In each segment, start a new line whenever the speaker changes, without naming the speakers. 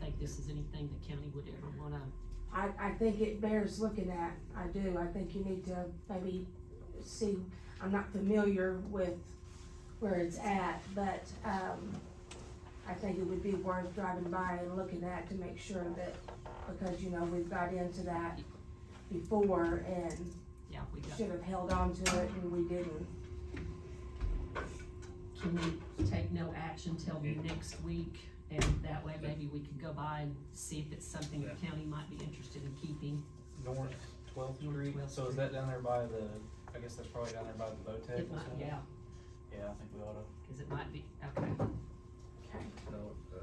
think this is anything the county would ever wanna,
I, I think it bears looking at, I do, I think you need to maybe see, I'm not familiar with where it's at, but, um, I think it would be worth driving by and looking at to make sure that, because, you know, we've got into that before and
yeah, we got.
should have held on to it and we didn't.
Can we take no action till next week? And that way maybe we can go by and see if it's something the county might be interested in keeping.
North Twelfth
North
Street,
12th
so is that down there by the, I guess that's probably down there by the Botec
It
or
might,
something?
yeah,
Yeah, I think we oughta,
cause it might be, okay,
Okay.
No, uh,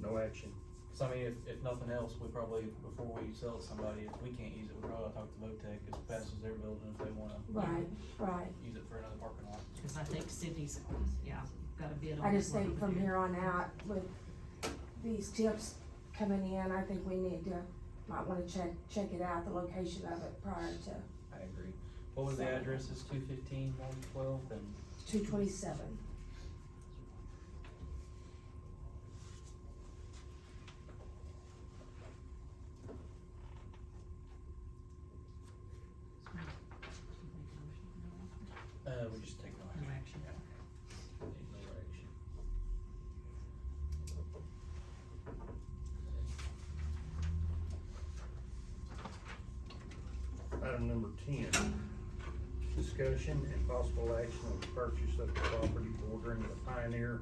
no action.
so I mean, if, if nothing else, we probably, before we sell it to somebody, if we can't use it, we probably oughta talk to Botec as fast as they're building, if they wanna
Right, right.
use it for another parking lot.
cause I think Sydney's, yeah, got a bid on.
I just
one
think
over
from
there.
here on out with these tips coming in, I think we need to, might wanna check, check it out, the location of it prior to
I agree. What was the
So-
addresses, two fifteen, one twelve, and
two twenty-seven.
Uh, we just take no
No
action.
action.
Take no action.
Item number ten, discussion and possible action on the purchase of the property bordering the Pioneer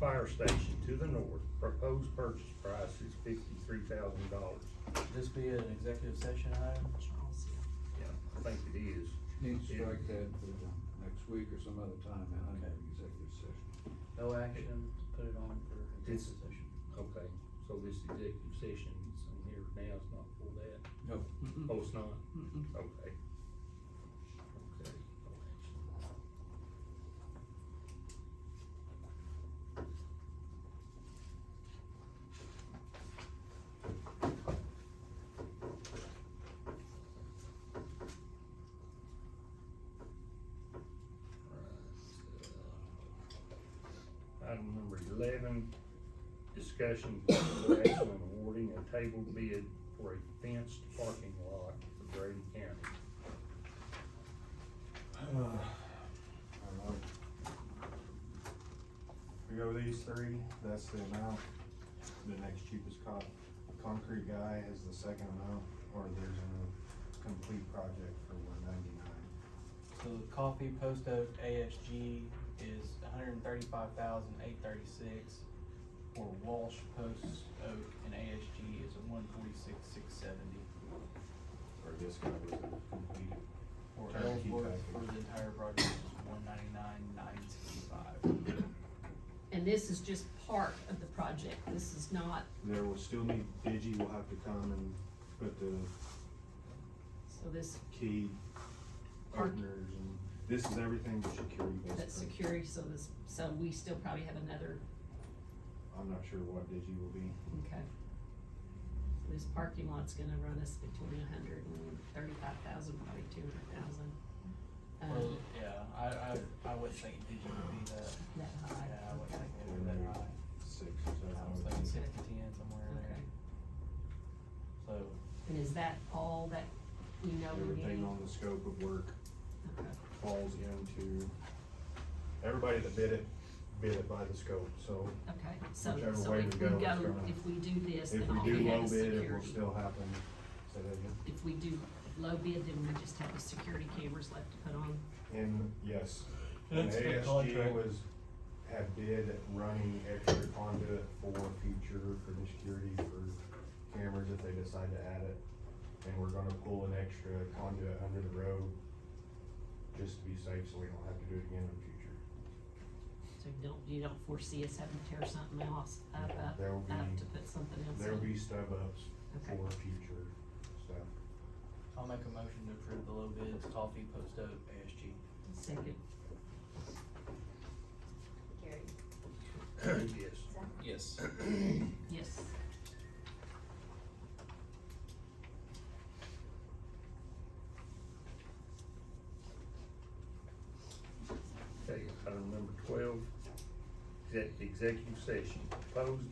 Fire Station to the north. Proposed purchase price is fifty-three thousand dollars.
Would This be an executive session item?
Charles, yeah.
Yeah, I think it is.
Need to strike that for the next week or some other time out of executive session.
No action, put it on for
It's-
executive session.
Okay, so this executive session is on here now, it's not for that?
No.
Mm-mm,
Oh, it's not?
mm-mm.
Okay. Okay, no action. Item number eleven, discussion possible action on awarding a table bid for a fenced parking lot for Grady County.
Alright. We go with these three, that's the amount, the next cheapest co- concrete guy is the second amount, or there's a complete project for one ninety-nine.
So the coffee post oak ASG is one hundred thirty-five thousand eight thirty-six, or Walsh post oak and ASG is one forty-six six seventy,
Or this guy was a complete,
or
Turnkey
Ellsworth
package.
for the entire project is one ninety-nine nine sixty-five.
And this is just part of the project, this is not,
there will still need, Digi will have to come and put the
so this,
key partners and, this is everything but security
that's
basically.
security, so this, so we still probably have another
I'm not sure what Digi will be,
Okay. So this parking lot's gonna run us between a hundred and thirty-five thousand, probably two hundred thousand. Um,
Well, yeah, I, I, I would think Digi would be the,
that
yeah,
high,
I would think it would be that high.
six or seven.
I was thinking six to ten, somewhere in there,
okay.
so,
And is that all that we know we're
Everything
getting?
on the scope of work.
Okay.
falls into, everybody that bid it, bid it by the scope, so
Okay, so,
Whichever
so
way
if
we
we
go, it's
go,
gonna-
if we do this,
if
then
we
all
do
we have
low
is
bid, it will
security.
still happen. Say that again?
If we do low bid, then we just have the security cameras left to put on.
And, yes, and
That's the
ASG
contract.
was, had bid at running extra conduit for future, for the security, for cameras if they decide to add it. And we're gonna pull an extra conduit under the road, just to be safe, so we don't have to do it again in the future.
So you don't, you don't foresee us having to tear something else up, up,
There will be-
up to put something else in?
There'll be stub ups
Okay.
for future stuff.
I'll make a motion to approve the low bids, coffee post oak ASG.
Second,
Gary,
Yes.
Zach,
Yes.
yes.
Okay, item number twelve, exec- executive session, proposed